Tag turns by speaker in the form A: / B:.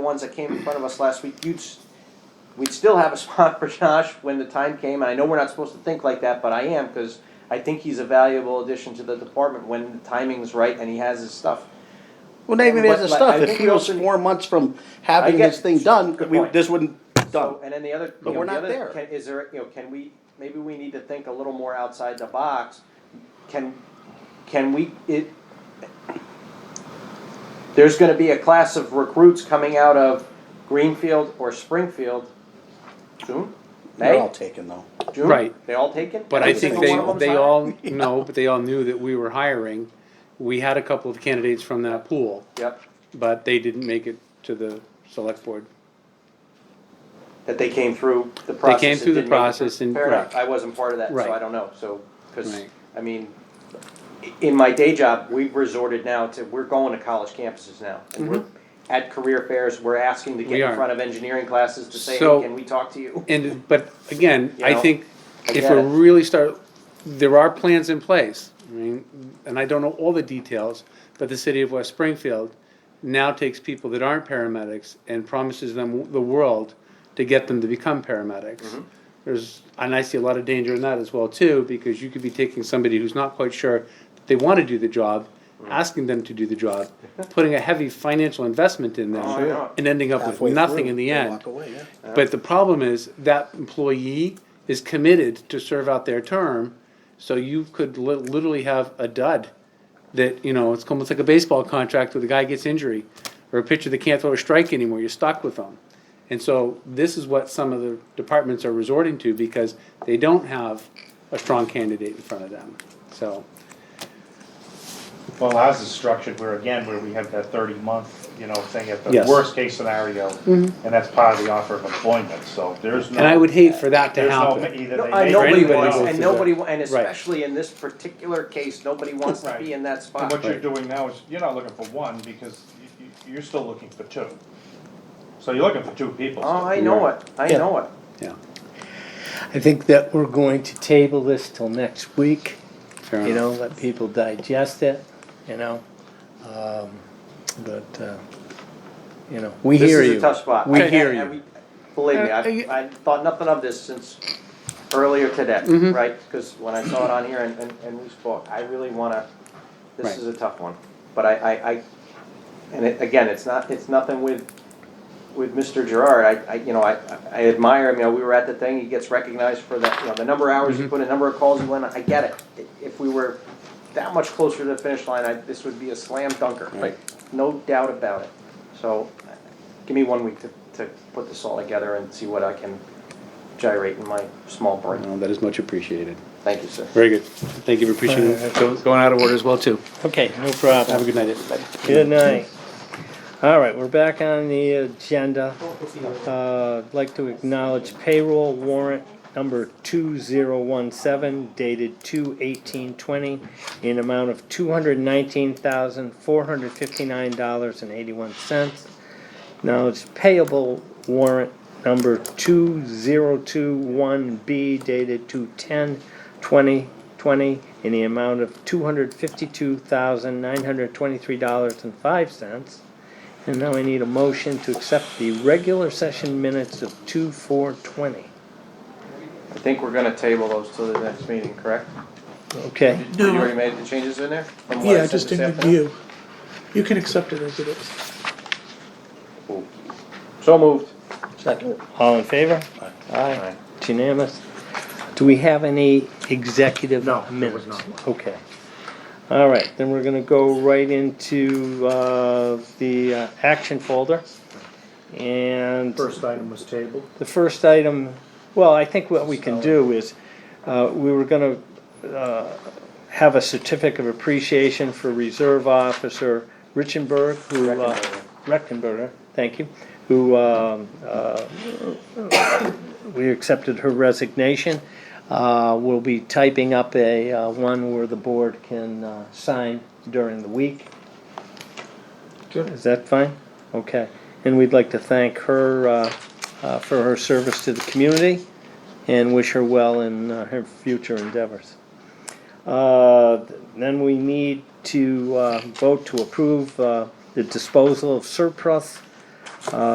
A: ones that came in front of us last week, you'd, s- we'd still have a spot for Josh when the time came. And I know we're not supposed to think like that, but I am, because I think he's a valuable addition to the department when the timing's right and he has his stuff.
B: Well, not even
A: But,
B: as a
A: like, I
B: stuff, if
A: think
B: he
A: we
B: was
A: also need-
B: four months from having
A: get-
B: this thing done,
A: Good
B: we,
A: point.
B: this wouldn't done.
A: So, eh? and then the other,
B: But
A: you know,
B: we're
A: the
B: not
A: other,
B: there.
A: can, is there, you know, can we, maybe we need to think a little more outside the box? Can, can we, it, there's gonna be a class of recruits coming out of Greenfield or Springfield soon?
B: They're
A: May,
B: all taken though.
A: June?
C: Right.
A: They all taken?
C: But I
A: Every
C: think
A: single
C: they,
A: one of them's
C: they
A: hired?
C: all, no, but they all knew that we were hiring. We had a couple of candidates from that pool,
A: Yep,
C: but they didn't make it to the select board.
A: that they came through the process.
C: came
A: and
C: through the
A: didn't make it
C: process and-
A: Fair enough,
C: right.
A: I wasn't part of that, so I
C: Right.
A: don't know, so, cause,
C: Right.
A: I mean, i- in my day job, we've resorted now to, we're going to college campuses now. And we're at career fairs, we're asking to get
C: Mm-hmm. We
A: in
C: are.
A: front of engineering classes to say,
C: So-
A: hey, can we talk to you?
C: And, but again,
A: You
C: I
A: know,
C: think
A: I
C: if
A: get
C: we
A: it.
C: really start, there are plans in place. I mean, and I don't know all the details, but the city of West Springfield now takes people that aren't paramedics and promises them the world to get them to become
A: Mm-hmm.
C: paramedics. There's, and I see a lot of danger in that as well too, because you could be taking somebody who's not quite sure they want to do the job,
A: Mm-hmm.
C: asking them to do the job, putting a heavy financial investment in
A: Oh, I know.
C: them, and ending up
B: Halfway
C: with nothing
B: through,
C: in the
B: they
C: end.
B: walk away, yeah.
C: But the problem is that employee is committed to serve out their term, so you could li- literally have a dud. That you know, it's almost like a baseball contract where the guy gets injury, or a pitcher that can't throw a strike anymore. You're stuck with them, and so this is what some of the departments are resorting to because they don't have a strong candidate in front of them. So
D: Well, ours is structured where, again, where we have that thirty month, you know, thing at the
C: Yes.
D: worst case scenario, and
A: Mm-hmm.
D: that's part of the offer of employment, so there's no.
C: And I would hate for that to
D: there's no-
C: happen.
D: Either
A: No,
D: they
A: I-
D: make
A: Nobody
D: it or
A: wants,
C: goes
D: not.
A: and
C: through
A: nobody,
C: that.
A: wa- and
C: Right.
A: especially in this particular case, nobody wants to be
D: Right.
A: in that
D: And
A: spot.
D: what you're
C: Right.
D: doing now is, you're not looking for one, because you, you, you're still looking for two. So you're looking for two people.
A: Oh,
D: still.
A: I know it, I
E: Yeah.
A: know it.
C: yeah,
E: I think that we're going to table this till next week,
C: fair
E: you
C: enough.
E: know, let people digest it, you know? Um, But, uh, you know, we
A: This
E: hear
A: is
E: you.
A: a tough spot.
E: We
A: I-
E: hear
A: I- I-
E: you.
A: we- Believe me, I've, I thought nothing of this since earlier today,
E: Mm-hmm.
A: right? Because when I saw it on here and, and, and we spoke, I really wanna, this
C: Right.
A: is a tough one. But I, I, I, and it, again, it's not, it's nothing with, with Mr. Gerard, I, I, you know, I, I admire him, you know, we were at the thing, he gets recognized for the, you know, the number of hours he put, in, number of calls he went, on. I get it. If we were that much closer to the finish line, I, this would be a slam dunker, like,
C: Right.
A: no doubt about it. So, give me one week to, to put this all together and see what I can gyrate in my small brain.
C: No, that is much appreciated.
A: Thank you, sir.
C: Very good. Thank you for appreciating go- going out of order as well too.
E: Okay, no
C: Have a
E: problem.
C: good night, everybody.
E: Good night. All right, we're back on the agenda. Uh, I'd like to acknowledge payroll warrant number 2017 dated 2/18/20 in amount of $219,459.81. Acknowledge payable warrant number 2021B dated 2/10/2020 in the amount of $252,923.05. And now I need a motion to accept the regular session minutes of two four twenty.
A: I think we're gonna table those till the next meeting, correct?
E: Okay,
A: You
F: No.
A: already made the changes in there? from what I
F: Yeah,
A: said
F: just
A: this
F: in
A: afternoon?
F: review. You can accept it as it is.
A: So moved.
B: Second.
E: all in favor? Aye. It's unanimous. Do we have any executive
F: No,
E: minutes?
F: there was not.
E: Okay. All right, then we're gonna go right into, uh, the uh, action folder. And
F: First item was tabled.
E: the first item, well, I think what we can do is, uh, we were gonna uh, have a certificate of appreciation for Reserve Officer Richenberg, who. uh, Reckenberger, thank you, who, um, uh, we accepted her resignation. Uh, We'll be typing up a, uh, one where the board can uh, sign during the week.
F: Good.
E: Is that fine? Okay. And we'd like to thank her uh, uh, for her service to the community and wish her well in uh, her future endeavors. Uh, Then we need to uh, vote to approve uh, the disposal of surplus